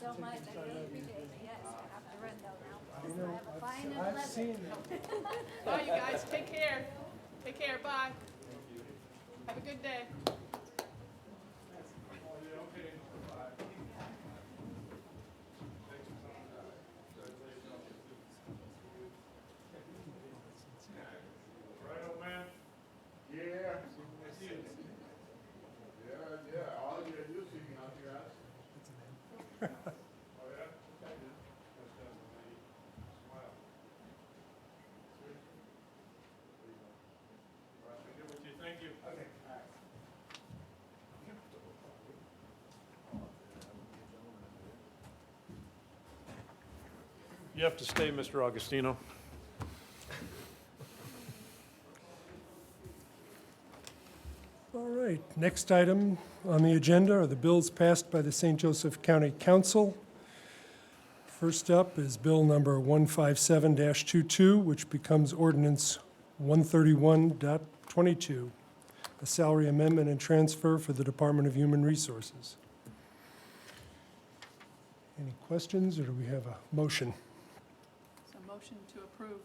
so much, I really appreciate it, yes, I have to run though now. You I know, have a fine and I've, I've leather. seen it. Bye, you guys. Take care. Take care. Bye. Have a good day. Right on, man. Yeah, That's it. yeah, yeah, all you gotta do is you can help your ass. Oh, yeah? That's done for me. Smile. See? There you go. All right, I did what you, thank you. Okay. You have to stay, Mr. Augustino. All right, next item on the agenda are the bills passed by the St. Joseph County Council. First up is Bill Number 157-22, which becomes Ordinance 131.22, a salary amendment and transfer for the Department of Human Resources. Any questions, or do we have a motion? So motion to approve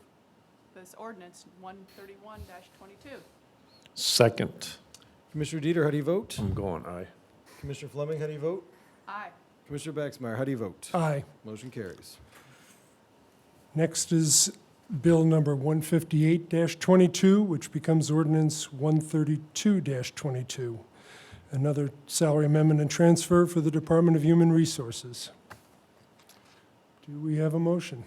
this ordinance one thirty-one twenty-two. Second. Commissioner Dieter, how do you vote? I'm going aye. Commissioner Fleming, how do you vote? Aye. Commissioner Baxmeyer, how do you vote? Aye. Motion carries. Next is Bill number 158-22, which becomes ordinance 132-22, another salary amendment and transfer for the Department of Human Resources. Do we have a motion?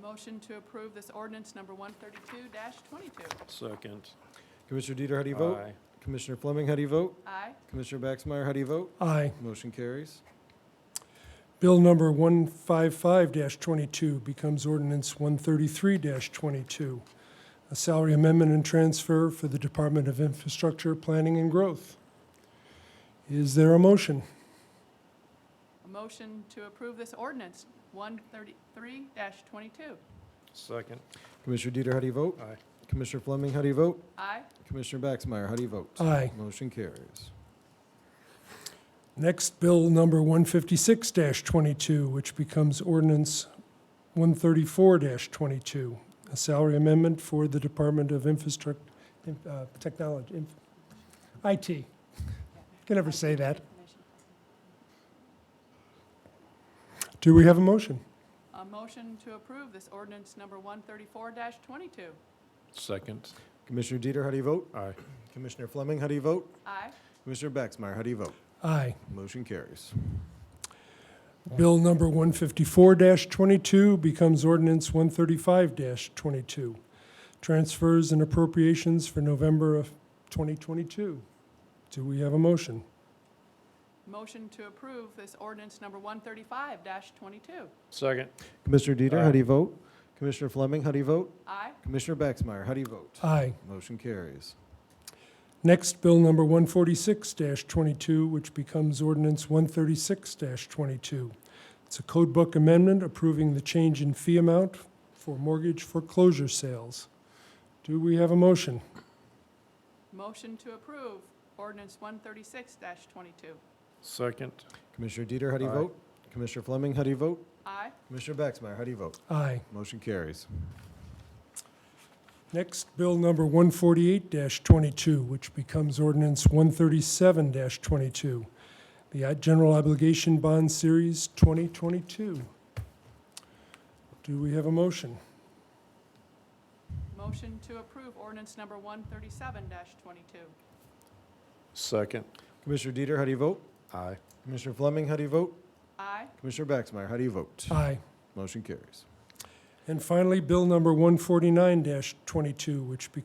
Motion to approve this ordinance number one thirty-two twenty-two. Second. Commissioner Dieter, how do you vote? Aye. Commissioner Fleming, how do you vote? Aye. Commissioner Baxmeyer, how do you vote? Aye. Motion carries. Bill number 155-22 becomes ordinance 133-22, a salary amendment and transfer for the Department of Infrastructure, Planning, and Growth. Is there a motion? A motion to approve this ordinance one thirty-three twenty-two. Second. Commissioner Dieter, how do you vote? Aye. Commissioner Fleming, how do you vote? Aye. Commissioner Baxmeyer, how do you vote? Aye. Motion carries. Next, Bill number 156-22, which becomes ordinance 134-22, a salary amendment for the Department of Infrastructure, Technology, Inf- IT. Can never say that. Do we have a motion? A motion to approve this ordinance number one thirty-four twenty-two. Second. Commissioner Dieter, how do you vote? Aye. Commissioner Fleming, how do you vote? Aye. Commissioner Baxmeyer, how do you vote? Aye. Motion carries. Bill number 154-22 becomes ordinance 135-22, transfers and appropriations for November of 2022. Do we have a motion? Motion to approve this ordinance number one thirty-five twenty-two. Second. Commissioner Dieter, Aye. how do you vote? Commissioner Fleming, how do you vote? Aye. Commissioner Baxmeyer, how do you vote? Aye. Motion carries. Next, Bill number 146-22, which becomes ordinance 136-22. It's a code book amendment approving the change in fee amount for mortgage foreclosure sales. Do we have a motion? Motion to approve ordinance one thirty-six twenty-two. Second. Commissioner Dieter, how do you Aye. vote? Commissioner Fleming, how do you vote? Aye. Commissioner Baxmeyer, how do you vote? Aye. Motion carries. Next, Bill number 148-22, which becomes ordinance 137-22, the uh, General Obligation Bond Series 2022. Do we have a motion? Motion to approve ordinance number one thirty-seven twenty-two. Second. Commissioner Dieter, how do you vote? Aye. Commissioner Fleming, how do you vote? Aye. Commissioner Baxmeyer, how do you vote? Aye. Motion carries. And finally, Bill number 149-22, which becomes